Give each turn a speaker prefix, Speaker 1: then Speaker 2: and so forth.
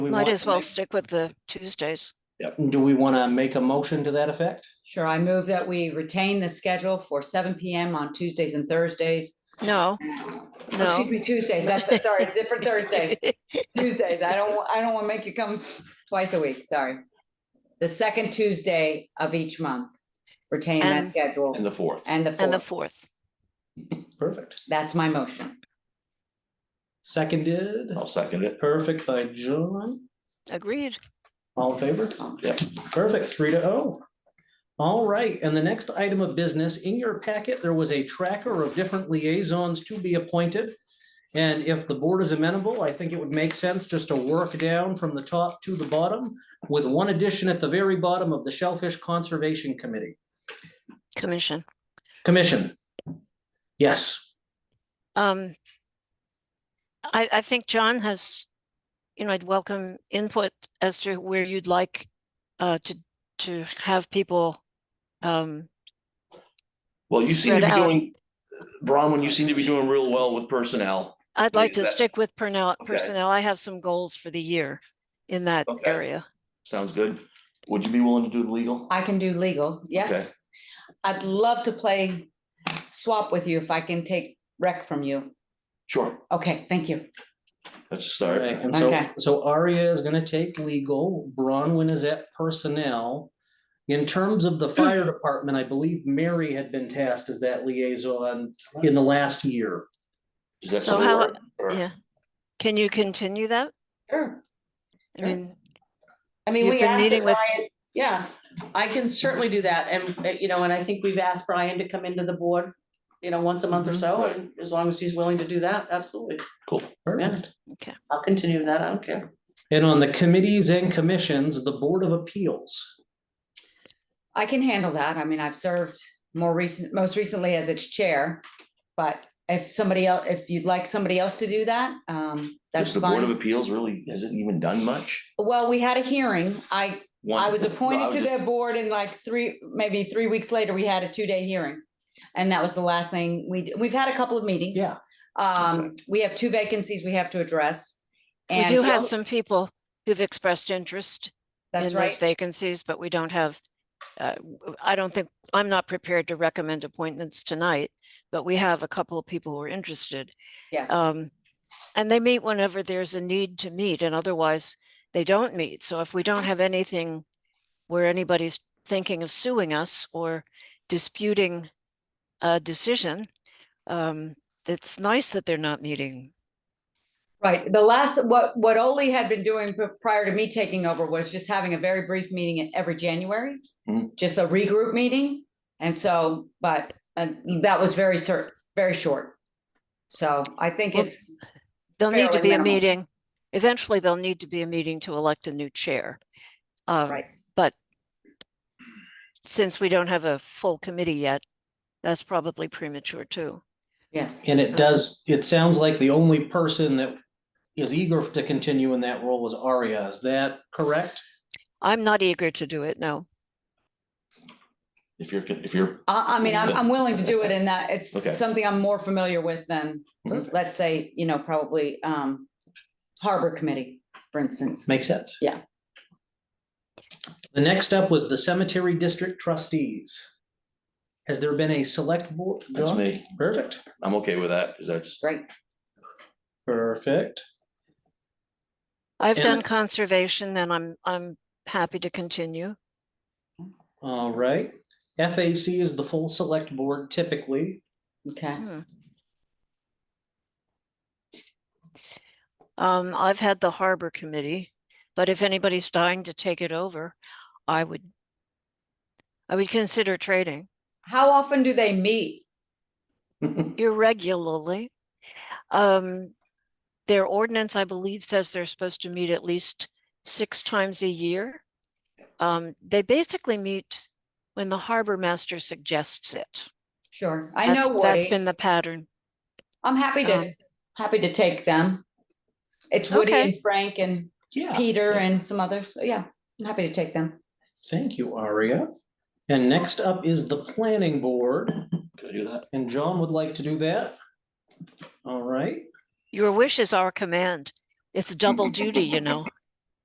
Speaker 1: we
Speaker 2: Might
Speaker 1: want
Speaker 2: as
Speaker 1: to
Speaker 2: well
Speaker 1: make-
Speaker 2: stick with the Tuesdays.
Speaker 1: Yep. Do we want to make a motion to that effect?
Speaker 3: Sure, I move that we retain the schedule for seven PM on Tuesdays and Thursdays.
Speaker 2: No,
Speaker 3: Oh, Excuse
Speaker 2: no.
Speaker 3: me, Tuesdays, that's, sorry, different Thursday, Tuesdays, I don't, wa- I don't want to make you come twice a week, sorry. The second Tuesday of each month, retain that
Speaker 2: And-
Speaker 3: schedule
Speaker 1: And the fourth.
Speaker 3: and the
Speaker 2: And the
Speaker 3: fourth,
Speaker 2: fourth.
Speaker 1: Perfect.
Speaker 3: that's my motion.
Speaker 1: Seconded.
Speaker 4: I'll second it.
Speaker 1: Perfect by John.
Speaker 2: Agreed.
Speaker 1: All in favor?
Speaker 3: Okay.
Speaker 4: Yep.
Speaker 1: Perfect, three to oh. All right, and the next item of business, in your packet, there was a tracker of different liaisons to be appointed. And if the board is amenable, I think it would make sense just to work down from the top to the bottom with one addition at the very bottom of the Shellfish Conservation Committee,
Speaker 2: Commission.
Speaker 1: Commission. Yes,
Speaker 2: Um, I, I think John has, you know, I'd welcome input as to where you'd like uh, to, to have people. um,
Speaker 4: Well, you seem
Speaker 2: Spread
Speaker 4: to be
Speaker 2: out.
Speaker 4: doing, Bronwyn, you seem to be doing real well with personnel.
Speaker 2: I'd
Speaker 4: Yeah,
Speaker 2: like to
Speaker 4: that-
Speaker 2: stick with personnel,
Speaker 4: Okay.
Speaker 2: personnel. I have some goals for the year in that
Speaker 4: Okay.
Speaker 2: area.
Speaker 4: Sounds good. Would you be willing to do the legal?
Speaker 3: I can do legal,
Speaker 4: Okay.
Speaker 3: yes. I'd love to play swap with you if I can take rec from you.
Speaker 4: Sure,
Speaker 3: Okay, thank you.
Speaker 4: let's
Speaker 1: all
Speaker 4: start.
Speaker 1: right, and so,
Speaker 3: Okay.
Speaker 1: so Aria is gonna take legal, Bronwyn is at personnel. In terms of the fire department, I believe Mary had been tasked as that liaison in the last year.
Speaker 4: Is that
Speaker 2: So
Speaker 4: still
Speaker 2: how-
Speaker 4: work? Or-
Speaker 2: Yeah. Can you continue that?
Speaker 5: Sure.
Speaker 2: I
Speaker 5: Sure.
Speaker 2: mean,
Speaker 5: I mean,
Speaker 2: You've
Speaker 5: we
Speaker 2: been
Speaker 5: asked
Speaker 2: meeting
Speaker 5: that
Speaker 2: with-
Speaker 5: Brian, yeah, I can certainly do that. And, uh, you know, and I think we've asked Brian to come into the board, you know, once a month or
Speaker 2: Mhm.
Speaker 5: so,
Speaker 4: Right.
Speaker 5: and as long as he's willing to do that, absolutely.
Speaker 4: Cool.
Speaker 1: Perfect.
Speaker 5: I'll continue that. I don't care.
Speaker 1: And on the committees and commissions, the Board of Appeals.
Speaker 3: I can handle that. I mean, I've served more recent, most recently as its chair. But if somebody else, if you'd like somebody else to do that, um,
Speaker 4: Does
Speaker 3: that's
Speaker 4: the Board of
Speaker 3: fine.
Speaker 4: Appeals really hasn't even done much?
Speaker 3: Well, we had a hearing. I, I
Speaker 4: One-
Speaker 3: was appointed to
Speaker 4: just-
Speaker 3: the board and like three, maybe three weeks later, we had a two-day hearing. And that was the last thing we, d- we've had a couple of meetings.
Speaker 1: Yeah.
Speaker 3: Um, we have two vacancies we have to address.
Speaker 2: we
Speaker 3: and
Speaker 2: do
Speaker 3: we
Speaker 2: have
Speaker 3: al-
Speaker 2: some people who've expressed interest.
Speaker 3: That's
Speaker 2: in those
Speaker 3: right.
Speaker 2: vacancies, but we don't have, uh, w- I don't think, I'm not prepared to recommend appointments tonight, but we have a couple of people who are interested.
Speaker 3: Yes.
Speaker 2: Um, And they meet whenever there's a need to meet and otherwise they don't meet. So if we don't have anything where anybody's thinking of suing us or disputing a decision, um, it's nice that they're not meeting.
Speaker 3: Right, the last, what, what Ole had been doing p- prior to me taking over was just having a very brief meeting in every January.
Speaker 4: Mhm.
Speaker 3: Just a regroup meeting, and so, but, uh that was very cer, very short. So I think
Speaker 2: Well,
Speaker 3: it's,
Speaker 2: There'll need to
Speaker 3: Fairly
Speaker 2: be a
Speaker 3: minimal.
Speaker 2: meeting. Eventually, there'll need to be a meeting to elect a new chair. Um,
Speaker 3: right,
Speaker 2: since we don't have a full committee yet, that's probably premature too.
Speaker 3: yes,
Speaker 1: And it does, it sounds like the only person that is eager to continue in that role is Aria. Is that correct?
Speaker 2: I'm not eager to do it, no.
Speaker 4: If you're, if you're,
Speaker 3: I, I mean, I'm, I'm willing to do it in that, it's
Speaker 4: Okay.
Speaker 3: something I'm more familiar with than,
Speaker 4: Perfect.
Speaker 3: let's say, you know, probably, um. Harbor Committee, for instance,
Speaker 1: Makes sense.
Speaker 3: Yeah.
Speaker 1: The next up was the Cemetery District Trustees. Has there been a select board?
Speaker 4: that's
Speaker 1: John?
Speaker 4: me.
Speaker 1: Perfect.
Speaker 4: I'm okay with that, because that's,
Speaker 3: right,
Speaker 1: Perfect.
Speaker 2: I've
Speaker 1: Yeah.
Speaker 2: done conservation and I'm, I'm happy to continue.
Speaker 1: All right. FAC is the full select board typically.
Speaker 3: okay.
Speaker 2: Hmm. Um, I've had the harbor committee, but if anybody's dying to take it over, I would, I would consider trading
Speaker 3: How often do they meet?
Speaker 2: irregularly. Um, their ordinance, I believe, says they're supposed to meet at least six times a year. Um, they basically meet when the harbor master suggests it.
Speaker 3: Sure, I know
Speaker 2: That's-
Speaker 3: Woody.
Speaker 2: That's been the pattern.
Speaker 3: I'm happy to,
Speaker 2: Um,
Speaker 3: happy to take them. It's Woody
Speaker 2: Okay.
Speaker 3: and Frank and
Speaker 1: Yeah.
Speaker 3: Peter and some others. So yeah, I'm happy to take them.
Speaker 1: Thank you, Aria. And next up is the planning board,
Speaker 4: can I do that?
Speaker 1: and John would like to do that. All right,
Speaker 2: Your wish is our command. It's double duty, you know.